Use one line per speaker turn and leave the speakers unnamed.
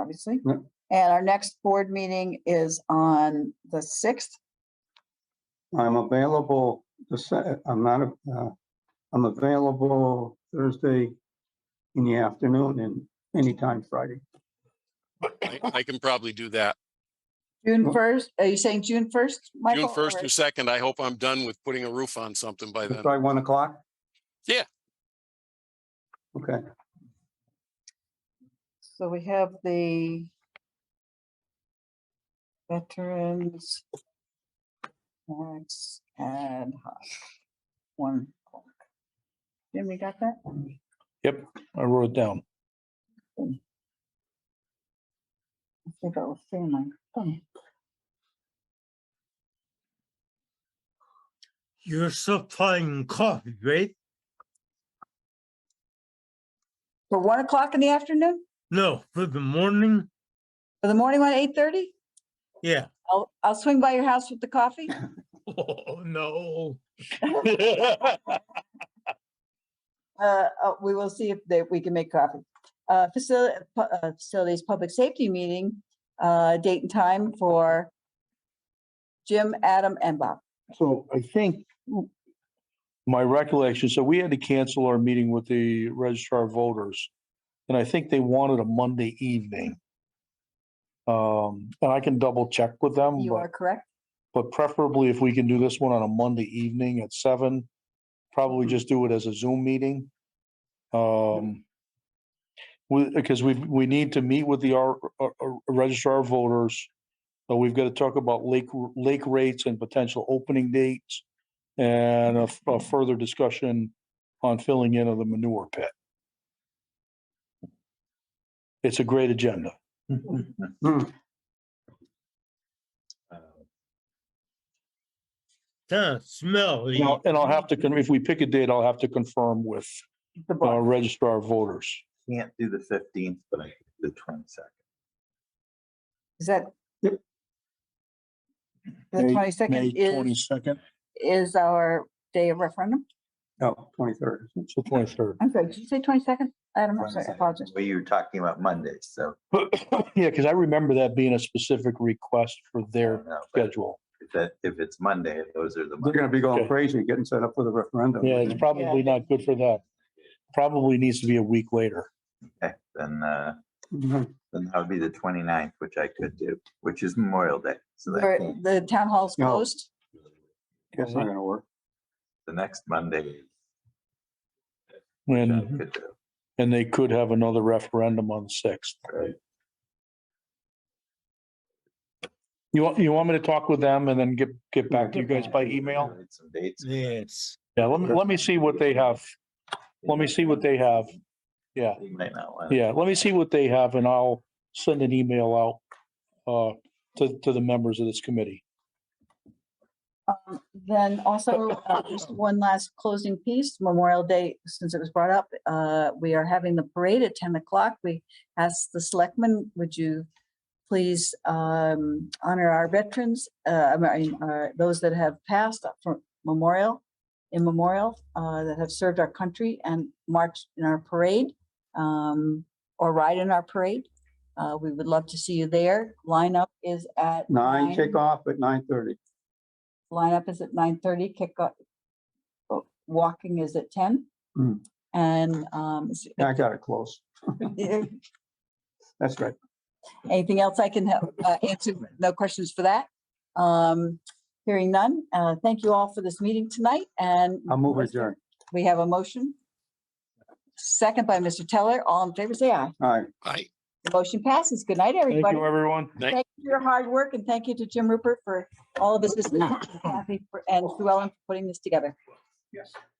obviously.
Right.
And our next board meeting is on the sixth.
I'm available, the se- I'm not, a- uh, I'm available Thursday in the afternoon and anytime Friday.
I, I can probably do that.
June
Well-
first, are you saying June first?
June first or second, I hope I'm done with putting a roof on something by then.
By one o'clock?
Yeah.
Okay,
So we have the veterans. Tax ad hoc, one. o'clock. Jim, we got that?
Yep, I wrote it down.
I think I was seeing my thumb.
You're supplying coffee, right?
For one o'clock in the afternoon,
No, for the morning?
for the morning one, eight thirty?
Yeah.
I'll, I'll swing by your house with the coffee.
Oh, no.
Uh, uh, we will see if they, we can make coffee. Uh, facility, uh, facilities, public safety meeting, uh, date and time for Jim, Adam and Bob.
so I think
My recollection, so we had to cancel our meeting with the registrar of voters. And I think they wanted a Monday evening. Um, and I can double check with them,
You are
but,
correct?
but preferably if we can do this one on a Monday evening at seven. Probably just do it as a Zoom meeting. Um. We, because we, we need to meet with the, our, registrar of voters. But we've got to talk about lake, r- lake rates and potential opening dates. And a, f- a further discussion on filling in of the manure pit. It's a great agenda.
Kind of smelly.
And I'll- and I'll have to, con- if we pick a date, I'll have to confirm with,
The
uh,
board.
registrar of voters.
can't do the fifteenth, but I can do the twenty-second.
Is that?
Yep.
The
May- May
twenty-second is,
twenty-second,
is our day of referendum?
no, Oh, twenty-third.
so twenty-third.
I'm sorry, did you say twenty-second? Adam, I'm sorry, I apologize.
Well, you were talking about Mondays, so.
Yeah, because I remember that being a specific request for
I
their
don't know, but
schedule.
if That, if it's Monday, those are the.
They're gonna be going
Okay.
crazy getting set up for the referendum.
Yeah, it's probably not good for that. Probably needs to be a week later.
Mondays. Then, uh,
Mhm.
then that would be the 29th, which I could do, which is Memorial Day. So that
Or
can't-
The town hall's
No.
closed.
That's not gonna work.
the next Monday. I
And, Mhm.
could do.
and they could have another referendum on the sixth.
Right.
You want, you want me to talk with them and then get, get back to you guys by email?
Need Some dates.
Yes.
Yeah, let me, let me see what they have. Let me see what they have. Yeah,
You might not want.
yeah, let me see what they have and I'll send an email out uh, to, to the members of this committee.
Um, Then also, uh, just one last closing piece, Memorial Day, since it was brought up, uh, we are having the parade at ten o'clock. We asked the selectmen, would you please um, honor our veterans, uh, I mean, uh, those that have passed up from memorial, in memorial, uh, that have served our country and marched in our parade um, or ride in our parade. Uh, We would love to see you there. Lineup is at.
Nine kickoff at nine thirty.
lineup is at nine thirty, kick off. oh, Walking is at ten.
Mm.
And um, is-
I got it close. That's right.
anything else I can help, uh, answer? No questions for that? Um, hearing none, uh, thank you all for this meeting tonight and.
I'll move adjourned.
We have a motion. Second by Mr. Teller, all in favor, say aye.
All right,
I,
The Motion passes. Good night,
Thank
everybody.
you, everyone.
Thank-
Thank you for your hard work and thank you to Jim Rupert for all of his assistance. Kathy for- And Sue Ellen for putting this together.